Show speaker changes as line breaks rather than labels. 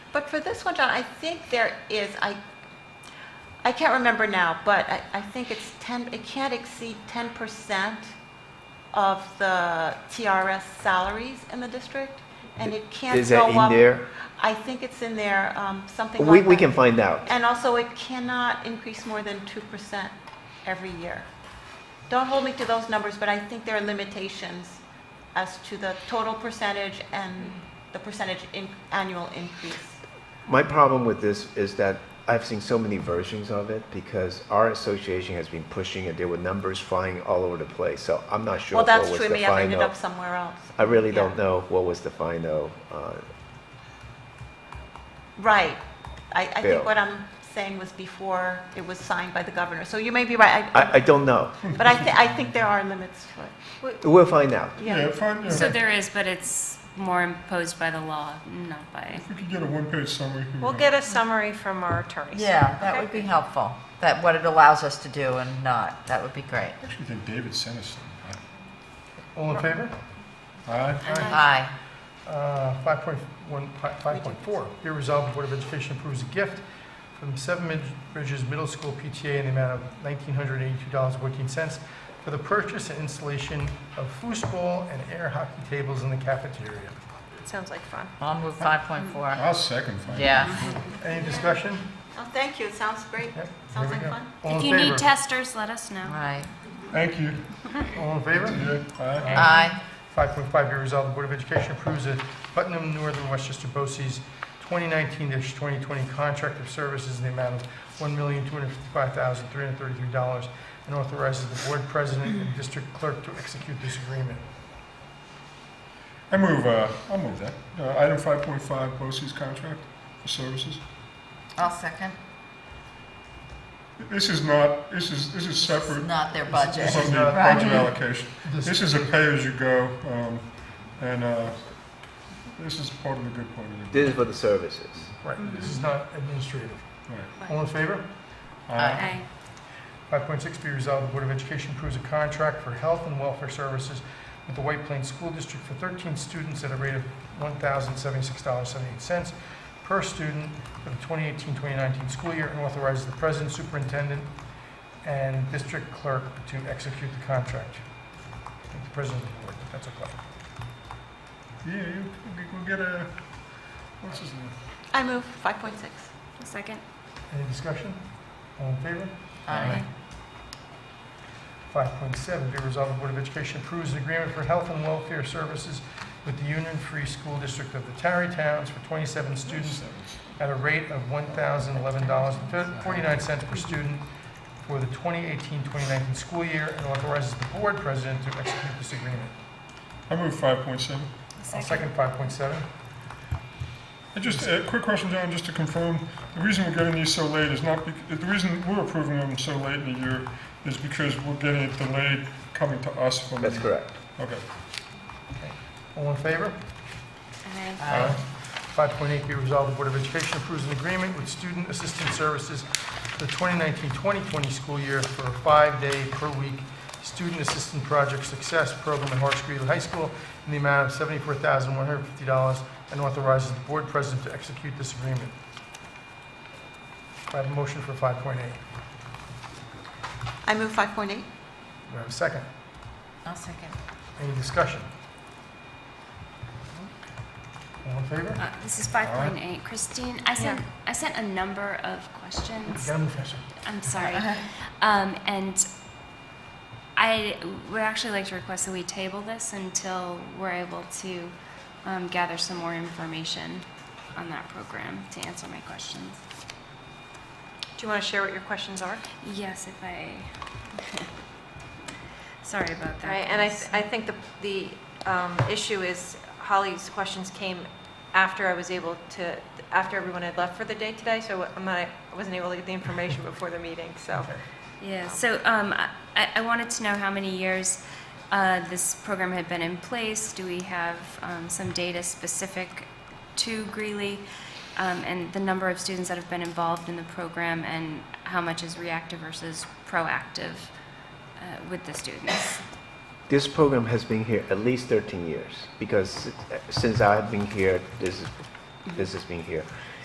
But for this one, John, I think there is, I, I can't remember now, but I, I think it's 10, it can't exceed 10% of the TRS salaries in the district, and it can't go up.
Is that in there?
I think it's in there, um, something
We,
like that.
we can find out.
And also, it cannot increase more than 2% every year. Don't hold me to those numbers, but I think there are limitations as to the total percentage and the percentage in, annual increase.
My problem with this is that I've seen so many versions of it because our association has been pushing it. There were numbers flying all over the place, so I'm not sure
Well, that's
what was
true,
the
we have ended
final.
up somewhere else.
I really
yeah.
don't know what was the final. Uh,
Right. I, I
Bill.
think what I'm saying was before it was signed by the governor, so you may be right. I-
I, I don't know.
But I, thi- I think there are limits to it.
We'll find out.
Yeah.
find,
So
if
there is, but it's more imposed by the law, not by.
we could get a one-page summary. who
We'll
knows?
get a summary from our attorneys.
Yeah, that would be helpful, that what it allows us to do and not, that would be great.
I actually think David sent us some.
All in favor?
Aye.
Aye.
Uh, 5.1 5.4, be resolved, the Board of Education approves a gift from Seven Mid- Bridges Middle School PTA in the amount of $1,982.14 for the purchase and installation of foosball and air hockey tables in the cafeteria.
Sounds like fun.
I'll move 5.4.
I'll second find.
Yeah.
Any discussion?
Oh, thank you, it sounds great.
Yep,
Sounds
here
like
we go.
fun.
All
If
in
you need
favor?
testers, let us know.
Right.
Thank you.
All in favor?
Yeah, aye.
Aye.
5.5, be resolved, the Board of Education approves the Putnam Northern Westchester BOCES 2019-2020 contract of services in the amount of $1,255,333 and authorizes the Board President and District Clerk to execute this agreement.
I move, uh, I'll move that. Uh, Item 5.5, BOSI's contract for services.
I'll second.
This is not, this is, this is separate.
Not their
This
budget.
is not
not
Right.
budget allocation. This is a pay-as-you-go, um, and uh, this is part of the good part of it.
This is for the services.
Right, this is not administrative.
Right.
All in favor?
Aye.
Aye.
5.6 be resolved, the Board of Education approves a contract for health and welfare services with the White Plains School District for 13 students at a rate of $1,076.78 per student for the 2018-2019 school year and authorizes the president, superintendent, and district clerk to execute the contract. I think The president of the board, that's okay.
Yeah, you, we'll get a, what's his name?
I move 5.6.
Second.
Any discussion? All in favor?
Aye.
5.7, be resolved, the Board of Education approves an agreement for health and welfare services with the Union Free School District of the Tarry Towns for 27 students at a rate of $1,011.49 per student for the 2018-2019 school year and authorizes the board president to execute this agreement.
I move 5.7.
I'll second 5.7.
I Just a quick question, John, just to confirm, the reason we're getting these so late is not, bec- the reason we're approving them so late in the year is because we're getting it delayed coming to us from.
That's correct.
Okay.
All in favor?
Aye.
Aye.
5.8 be resolved, the Board of Education approves an agreement with Student Assistance Services for the 2019-2020 school year for a five-day per week Student Assistant Project Success Program at Horace Greeley High School in the amount of $74,150 and authorizes the Board President to execute this agreement. Do I have a motion for 5.8. Do
I move 5.8.
I have a second?
I'll second.
Any discussion? All in favor?
Uh, This is 5.8. Christine, I sent, I sent a number of questions.
Gotta move faster.
I'm sorry. Um, and I would actually like to request that we table this until we're able to um, gather some more information on that program to answer my questions.
Do you want to share what your questions are?
Yes, if I. sorry about that.
Right, and I,
guys.
I think the, the um, issue is Holly's questions came after I was able to, after everyone had left for the day today, so I'm not, I wasn't able to get the information before the meeting, so.
Yeah, so um, I- I wanted to know how many years uh, this program had been in place. Do we have um, some data specific to Greeley? um, And the number of students that have been involved in the program and how much is reactive versus proactive uh, with the students?
This program has been here at least 13 years because since I've been here, this is, this has been here.